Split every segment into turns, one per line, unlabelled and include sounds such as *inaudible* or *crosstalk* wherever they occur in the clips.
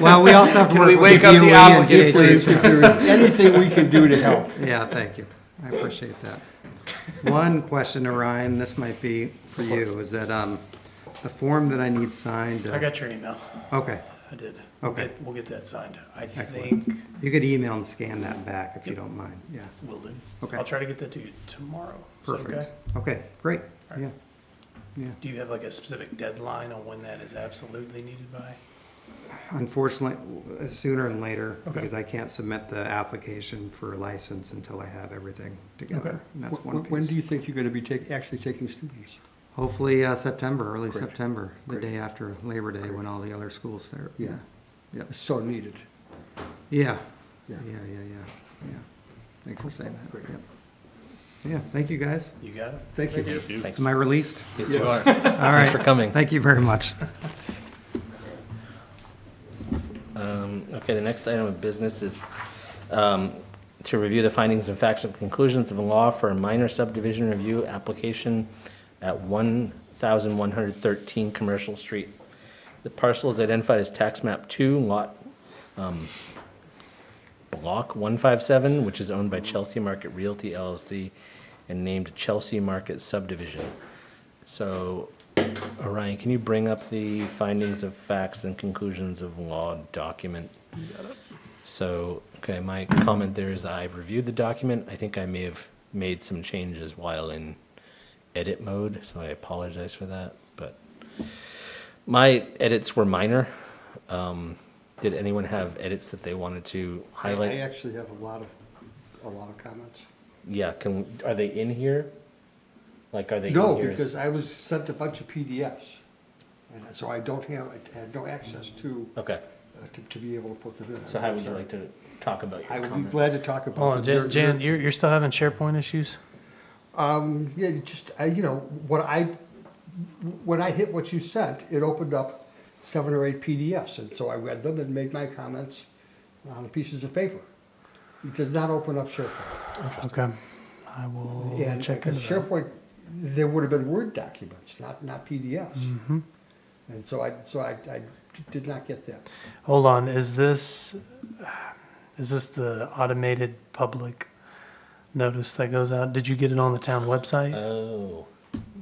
Well, we also have to
Can
work
we
with the
wake up the
DOE and
applicant,
DHS.
please?
If there is anything we can *laughs* do to help.
Yeah, thank you. I appreciate that. One question to Ryan, this might be for you, is that, um, the form that I need signed. uh,
I got your email.
Okay,
I did.
Okay.
We'll get that signed. I
Excellent.
think
you could email and scan that back if you don't mind, yeah.
we'll do.
Okay.
I'll try to get that to you tomorrow. Is that okay?
Perfect. Okay, great,
All
yeah.
right. Do you have like a specific deadline on when that is absolutely needed by?
Unfortunately, w- sooner than later,
Okay.
because I can't submit the application for a license until I have everything
Okay.
together. And that's
Wh-
one
wh- When do
piece.
you think you're going to be tak- actually taking students?
Hopefully, uh, September, early
Great.
September, the
Great.
day after Labor Day, when all the other schools start.
Yeah.
Yeah.
It's so needed.
Yeah, yeah,
Yeah.
yeah, yeah, yeah. Thanks for saying that.
Great.
Yep. Yeah, thank you, guys.
You got it?
Thank you.
Thanks.
Am I released?
Yes, you are.
All right.
for coming.
Thank you very much.
Um, Okay, the next item of business is um, to review the findings and facts and conclusions of the law for a minor subdivision review application at 1,113 Commercial Street. The parcel is identified as tax map 2, lot, um, block 157, which is owned by Chelsea Market Realty LLC and named Chelsea Market Subdivision. So, Orion, can you bring up the findings of facts and conclusions of law document? So, okay, my comment there is I've reviewed the document. I think I may have made some changes while in edit mode, so I apologize for that. But my edits were minor. Um, did anyone have edits that they wanted to
I
highlight?
actually have a lot of, a lot of comments.
Yeah, can, are they in here? Like, are they in here?
No,
as-
because I was sent a bunch of PDFs. And so I don't have, I had no access to,
Okay,
uh, to, to be able to put them in.
so how would you like to talk about your
I
comments?
would be glad to talk about.
Hold on,
the-
Jan,
your-
Jan,
your-
you're, you're still having SharePoint issues?
Um, yeah, you just, I, you know, what I, when I hit what you sent, it opened up seven or eight PDFs. And so I read them and made my comments on pieces of paper. It does not open up SharePoint.
Okay. I will
And
Oh, check
because
into that.
SharePoint, there would have been Word documents, not, not PDFs.
Mm-hmm.
And so I, so I, I did not get that.
Hold on, is this, is this the automated public notice that goes out? Did you get it on the town website?
Oh,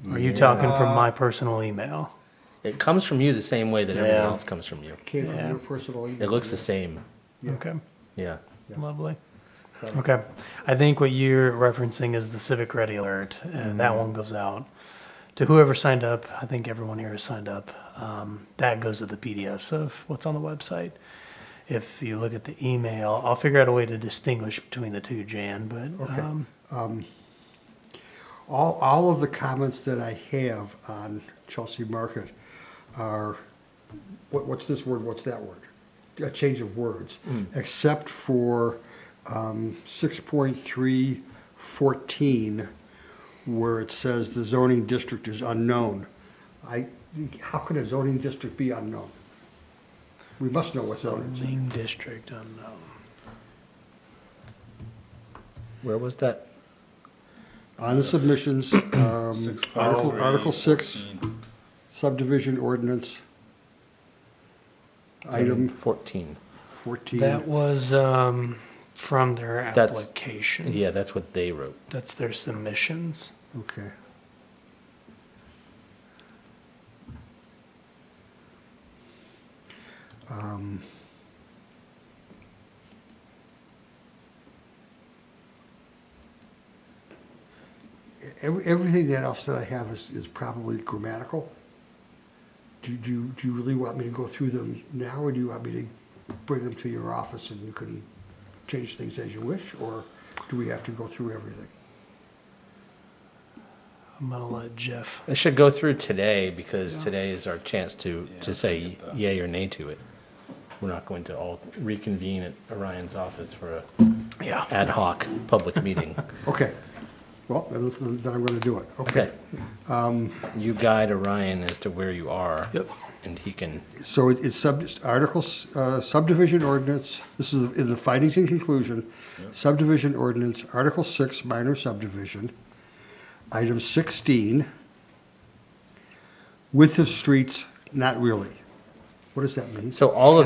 Or are you talking from my personal email?
it comes from you the same way that
Yeah.
everyone else comes from you.
Came from
Yeah.
your personal email.
It looks the same.
Yeah.
Okay,
Yeah.
Yeah.
lovely. Okay, I think what you're referencing is the Civic Ready Alert, and
Mm-hmm.
that one goes out to whoever signed up. I think everyone here has signed up. Um, that goes to the PDFs of what's on the website. If you look at the email, I'll figure out a way to distinguish between the two, Jan. But
Okay.
um,
All, all of the comments that I have on Chelsea Market are, what, what's this word, what's that word? A change of words, except for, um, six point three fourteen, where it says the zoning district is unknown. I, how can a zoning district be unknown? We must know what zoning is.
zoning district unknown.
Where was that?
On
*clears throat*
the submissions, um,
Six point
Article,
three,
Article six,
fourteen.
subdivision ordinance.
Item
Item
14.
That
14.
was um, from their
That's-
application.
Yeah, that's what they wrote.
That's their submissions.
Okay. Um, e- every- Everything that else that I have is, is probably grammatical. Do do you, do you really want me to go through them now, or do you want me to bring them to your office and you can change things as you wish? Or do we have to go through everything?
I'm gonna let Jeff.
It should go through today because today is our chance to, to say yay or nay to it. We're not going to all reconvene at Orion's office for a
Yeah.
ad hoc public *laughs* meeting.
Okay. Well, then, then I'm going to do it. Okay.
Okay. You guide Orion as to where you are.
Yep.
And he can,
So it- it's sub, articles, uh, subdivision ordinance, this is in the findings and conclusion, subdivision ordinance, Article six, minor subdivision, item sixteen, width of streets, not really. What does that mean?
so all of